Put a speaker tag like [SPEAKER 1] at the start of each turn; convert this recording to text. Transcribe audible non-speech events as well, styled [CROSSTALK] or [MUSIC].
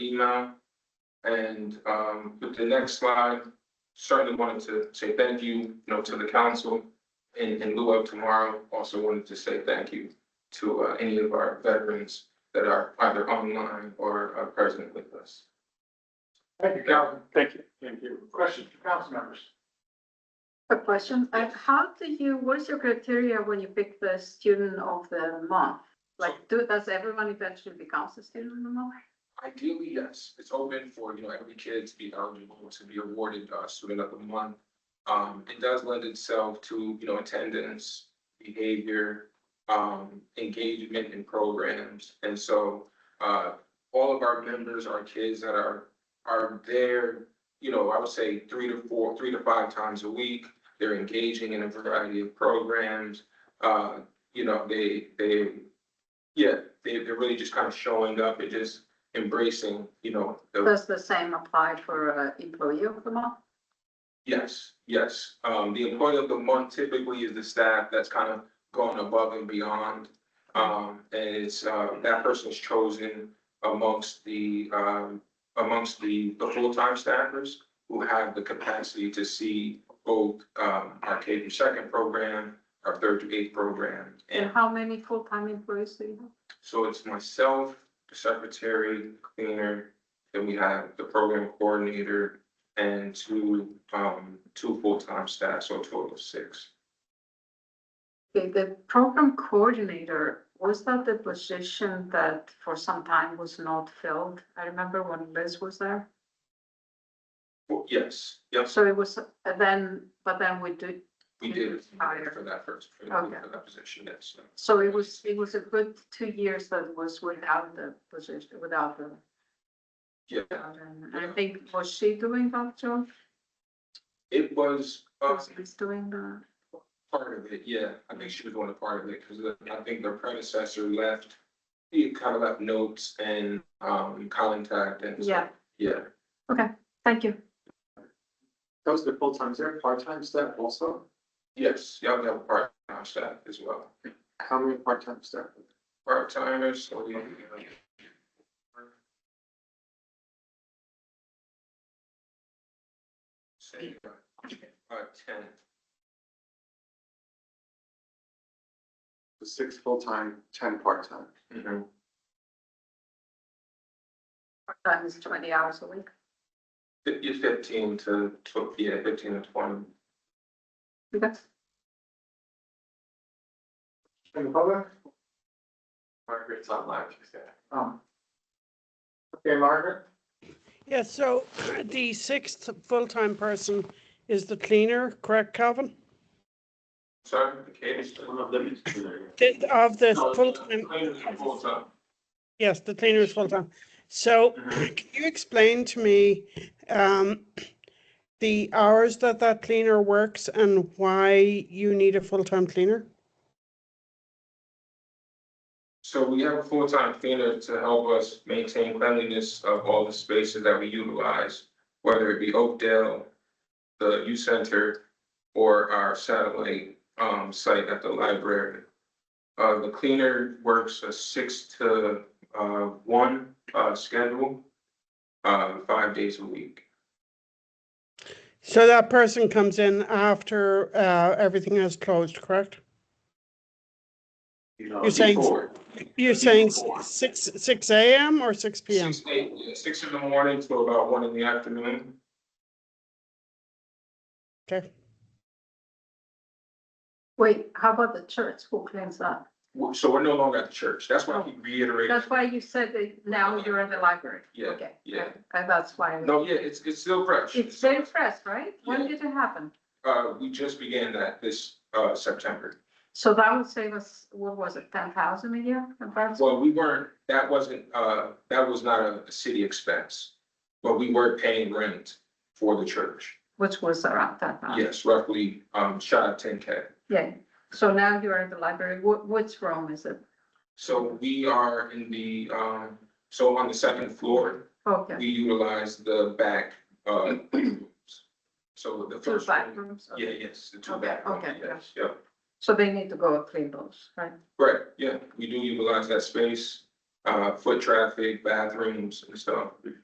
[SPEAKER 1] now. And um, with the next slide, certainly wanted to say thank you, you know, to the council. In in lieu of tomorrow, also wanted to say thank you to uh, any of our veterans that are either online or are present with us.
[SPEAKER 2] Thank you, Calvin.
[SPEAKER 3] Thank you.
[SPEAKER 2] Thank you. Questions for council members?
[SPEAKER 4] A question, uh, how do you, what is your criteria when you pick the student of the month? Like, do, does everyone eventually becomes a student of the month?
[SPEAKER 1] Ideally, yes, it's open for, you know, every kid to be eligible to be awarded uh student of the month. Um, it does lend itself to, you know, attendance, behavior, um, engagement in programs. And so uh, all of our members are kids that are, are there, you know, I would say three to four, three to five times a week. They're engaging in a variety of programs. Uh, you know, they, they, yeah, they, they're really just kind of showing up and just embracing, you know, the,
[SPEAKER 4] Does the same apply for uh, employee of the month?
[SPEAKER 1] yes, yes. Um, the employee of the month typically is the staff that's kind of gone above and beyond. Um, and it's, uh, that person's chosen amongst the, um, amongst the, the full-time staffers who have the capacity to see both, um, our K through second program, our third to eighth program,
[SPEAKER 4] And
[SPEAKER 1] and
[SPEAKER 4] how many full-time employees do you have?
[SPEAKER 1] So it's myself, the secretary, cleaner, then we have the program coordinator and two, um, two full-time staff, so a total of six.
[SPEAKER 4] Okay, the program coordinator, was that the position that for some time was not filled? I remember when Liz was there.
[SPEAKER 1] Well, yes, yes,
[SPEAKER 4] So it was, uh, then, but then we did,
[SPEAKER 1] we did
[SPEAKER 4] Higher.
[SPEAKER 1] for that first, for
[SPEAKER 4] Okay.
[SPEAKER 1] that position, yes.
[SPEAKER 4] so it was, it was a good two years that was without the position, without the
[SPEAKER 1] Yeah,
[SPEAKER 4] job. And I think, was she doing that job?
[SPEAKER 1] it was, uh,
[SPEAKER 4] Was Liz doing that?
[SPEAKER 1] part of it, yeah, I think she was doing a part of it, because I think the predecessor left, he kind of left notes and, um, contact and.
[SPEAKER 4] Yeah,
[SPEAKER 1] Yeah,
[SPEAKER 4] thank you.
[SPEAKER 2] That was the full time, is there a part time staff also?
[SPEAKER 1] yes, y'all have a part-time staff as well.
[SPEAKER 2] How many part time staff?
[SPEAKER 1] part-timers, so we. Say, uh, about ten,
[SPEAKER 2] Six full time, ten part time.
[SPEAKER 1] Mhm.
[SPEAKER 4] That is twenty hours a week.
[SPEAKER 1] Fif- yeah, fifteen to tw- yeah, fifteen to twenty.
[SPEAKER 4] Okay.
[SPEAKER 2] In the public? Margaret's online, she's there. Oh. Okay, Margaret?
[SPEAKER 5] Yeah, so [CLEARS THROAT] the sixth full-time person is the cleaner, correct, Calvin?
[SPEAKER 1] Sorry, the case.
[SPEAKER 5] The- Of the full-time,
[SPEAKER 1] Full-time.
[SPEAKER 5] yes, the cleaner is full-time. So [CLEARS THROAT]
[SPEAKER 1] Mhm.
[SPEAKER 5] can you explain to me um, [CLEARS THROAT] the hours that that cleaner works and why you need a full-time cleaner?
[SPEAKER 1] So we have a full-time cleaner to help us maintain cleanliness of all the spaces that we utilize, whether it be Oakdale, the youth center, or our satellite um site at the library. Uh, the cleaner works a six to uh one uh schedule, uh five days a week.
[SPEAKER 5] So that person comes in after uh, everything has closed, correct? You're saying-
[SPEAKER 1] Before.
[SPEAKER 5] You're saying s- six, six AM or six PM?
[SPEAKER 1] Six, eight, yeah, six in the morning to about one in the afternoon.
[SPEAKER 5] Okay,
[SPEAKER 4] Wait, how about the church? Who cleans that?
[SPEAKER 1] W- So we're no longer at the church. That's why I keep reiterating.
[SPEAKER 4] That's why you said that now you're in the library.
[SPEAKER 1] Yeah,
[SPEAKER 4] Okay,
[SPEAKER 1] yeah.
[SPEAKER 4] And that's why,
[SPEAKER 1] No, yeah, it's it's still fresh.
[SPEAKER 4] it's very fresh, right? When
[SPEAKER 1] Yeah.
[SPEAKER 4] did it happen?
[SPEAKER 1] Uh, we just began that this, uh, September.
[SPEAKER 4] So that would save us, what was it, ten thousand a year? about?
[SPEAKER 1] Well, we weren't, that wasn't, uh, that was not a, a city expense. But we were paying rent for the church.
[SPEAKER 4] Which was around that time.
[SPEAKER 1] Yes, roughly, um, shy of ten K.
[SPEAKER 4] Yeah, so now you're in the library. What, which room is it?
[SPEAKER 1] So we are in the, um, so on the second floor,
[SPEAKER 4] Okay,
[SPEAKER 1] we utilize the back, uh, rooms. So the
[SPEAKER 4] two
[SPEAKER 1] first.
[SPEAKER 4] back
[SPEAKER 1] room-
[SPEAKER 4] rooms.
[SPEAKER 1] Yeah, yes, the two
[SPEAKER 4] Okay,
[SPEAKER 1] back rooms,
[SPEAKER 4] okay,
[SPEAKER 1] yes, yeah.
[SPEAKER 4] So they need to go clean those, right?
[SPEAKER 1] Right, yeah, we do utilize that space, uh, foot traffic, bathrooms and stuff.